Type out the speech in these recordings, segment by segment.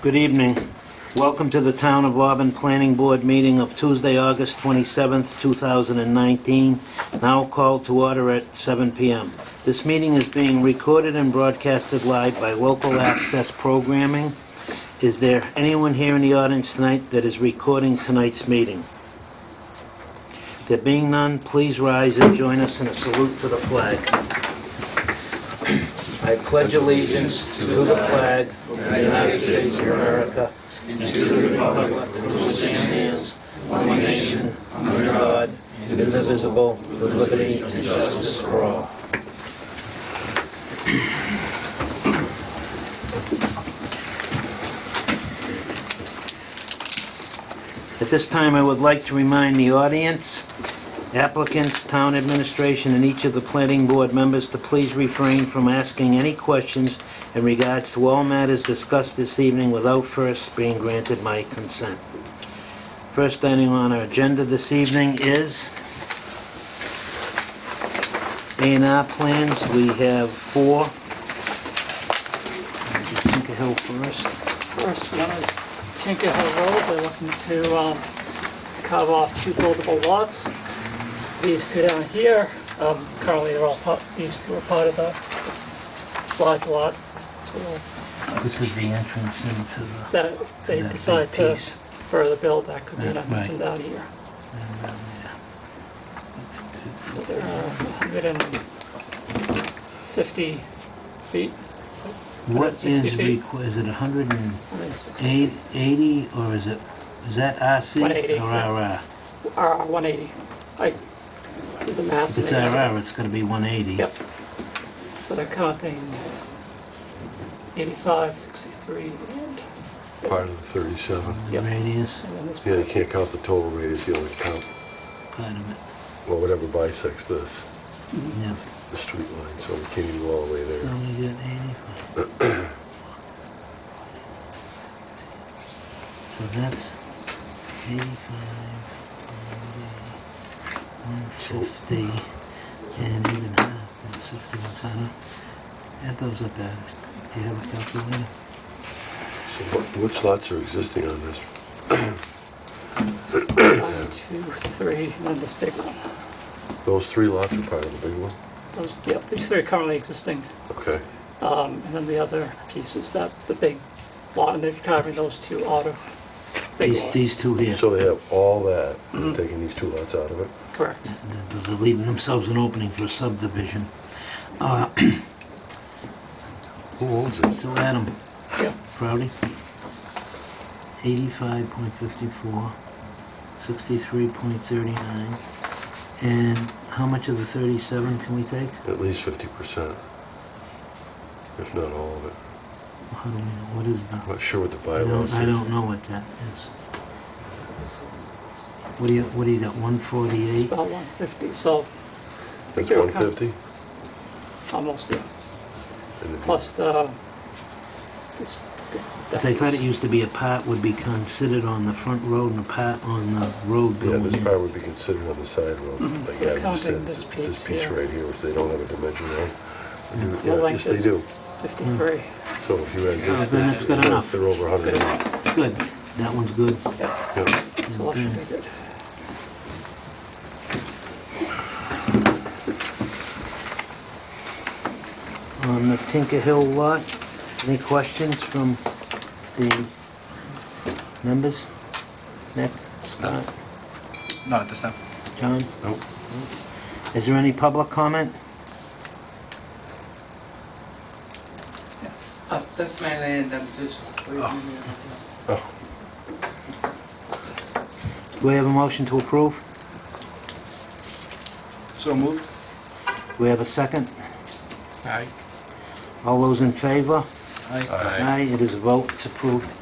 Good evening. Welcome to the Town of Auburn Planning Board meeting of Tuesday, August 27th, 2019, now called to order at 7 PM. This meeting is being recorded and broadcasted live by local access programming. Is there anyone here in the audience tonight that is recording tonight's meeting? There being none, please rise and join us in a salute to the flag. I pledge allegiance to the flag of the United States of America and to the republic for which it stands, one nation, under God, indivisible, with liberty and justice for all. At this time, I would like to remind the audience applicants, town administration, and each of the planning board members to please refrain from asking any questions in regards to all matters discussed this evening without first being granted my consent. First item on our agenda this evening is A and R plans. We have four. Tinker Hill first. First one is Tinker Hill Road, they're looking to um, carve off two buildable lots. These two down here, um, currently they're all, part- these two are part of the large lot. So This is the entrance into the... that, if they That big decide to piece. further build, that could be an Yeah, option right. down here. So they're uh, 150 feet, What 160 is, feet. requ- is it 100 and... 160, Eight eighty, or is it, is that RC? 180, Or yeah. RR? or 180. uh, I did the math. If it's RR, it's gonna be one eighty. Yep. So they're counting 85, 63, and, Part of the 37. The Yep. radius, and then this Yeah, you part. can't count the total radius, you only count, quite a well, whatever bisects this, bit, yeah. the street line, so we can't even go all the way So there. we got eighty-five. So that's eighty-five, one fifty, and even half, and sixty-one, so I don't, add those up, Adam. Do you have a calculator? So what- which lots are existing on this? One, two, three, and then this big one. Those three lots are part of the big one? Those, yep, these three are currently existing. Okay. Um, And then the other piece is that, the big lot, and they're carving those two out of big These, lot. these two here. So they have all that, Mm-hmm. and taking these two lots out of it? Correct. They're- They're leaving themselves an opening for a subdivision. Uh, Who owns it? So Adam, Yep. Proudy, 85.54, 63.39, and how much of the 37 can we take? At least 50%, if not all of it. How do we know, what is the, I'm not sure what oh the I bylaws don't, is. I don't know what that is. What do you, what do you got, 148? About 150, so That's Here, 150? almost, yeah. And if- plus the, this. Because I thought it used to be a part would be considered on the front road and a part on the road Yeah, going this in. part would be considered on the side road, Mm-hmm. like So Adam said, counting this it's it's this piece piece here. right here, which they don't have a dimension on. They do- The yeah, Yes, length they is do. 53. So if you add Yeah, this, then this, it's good and this, enough. they're over 100. Yeah. It's good, that one's good. So that Mm. should be good. on the Tinker Hill lot. Any questions from the members? Nick, Scott, No, just now. John? Nope. Is there any public comment? Oh, That's my land, I'm just waiting. Do we have a motion to approve? So moved? Do we have a second? Aye. All those in favor? Aye. Aye, it is a vote, it's approved. Do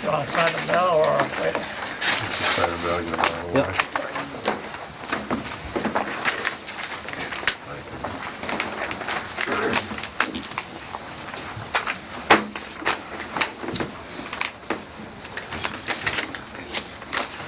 you want to sign them now or wait? Side of the road, you know, Yep.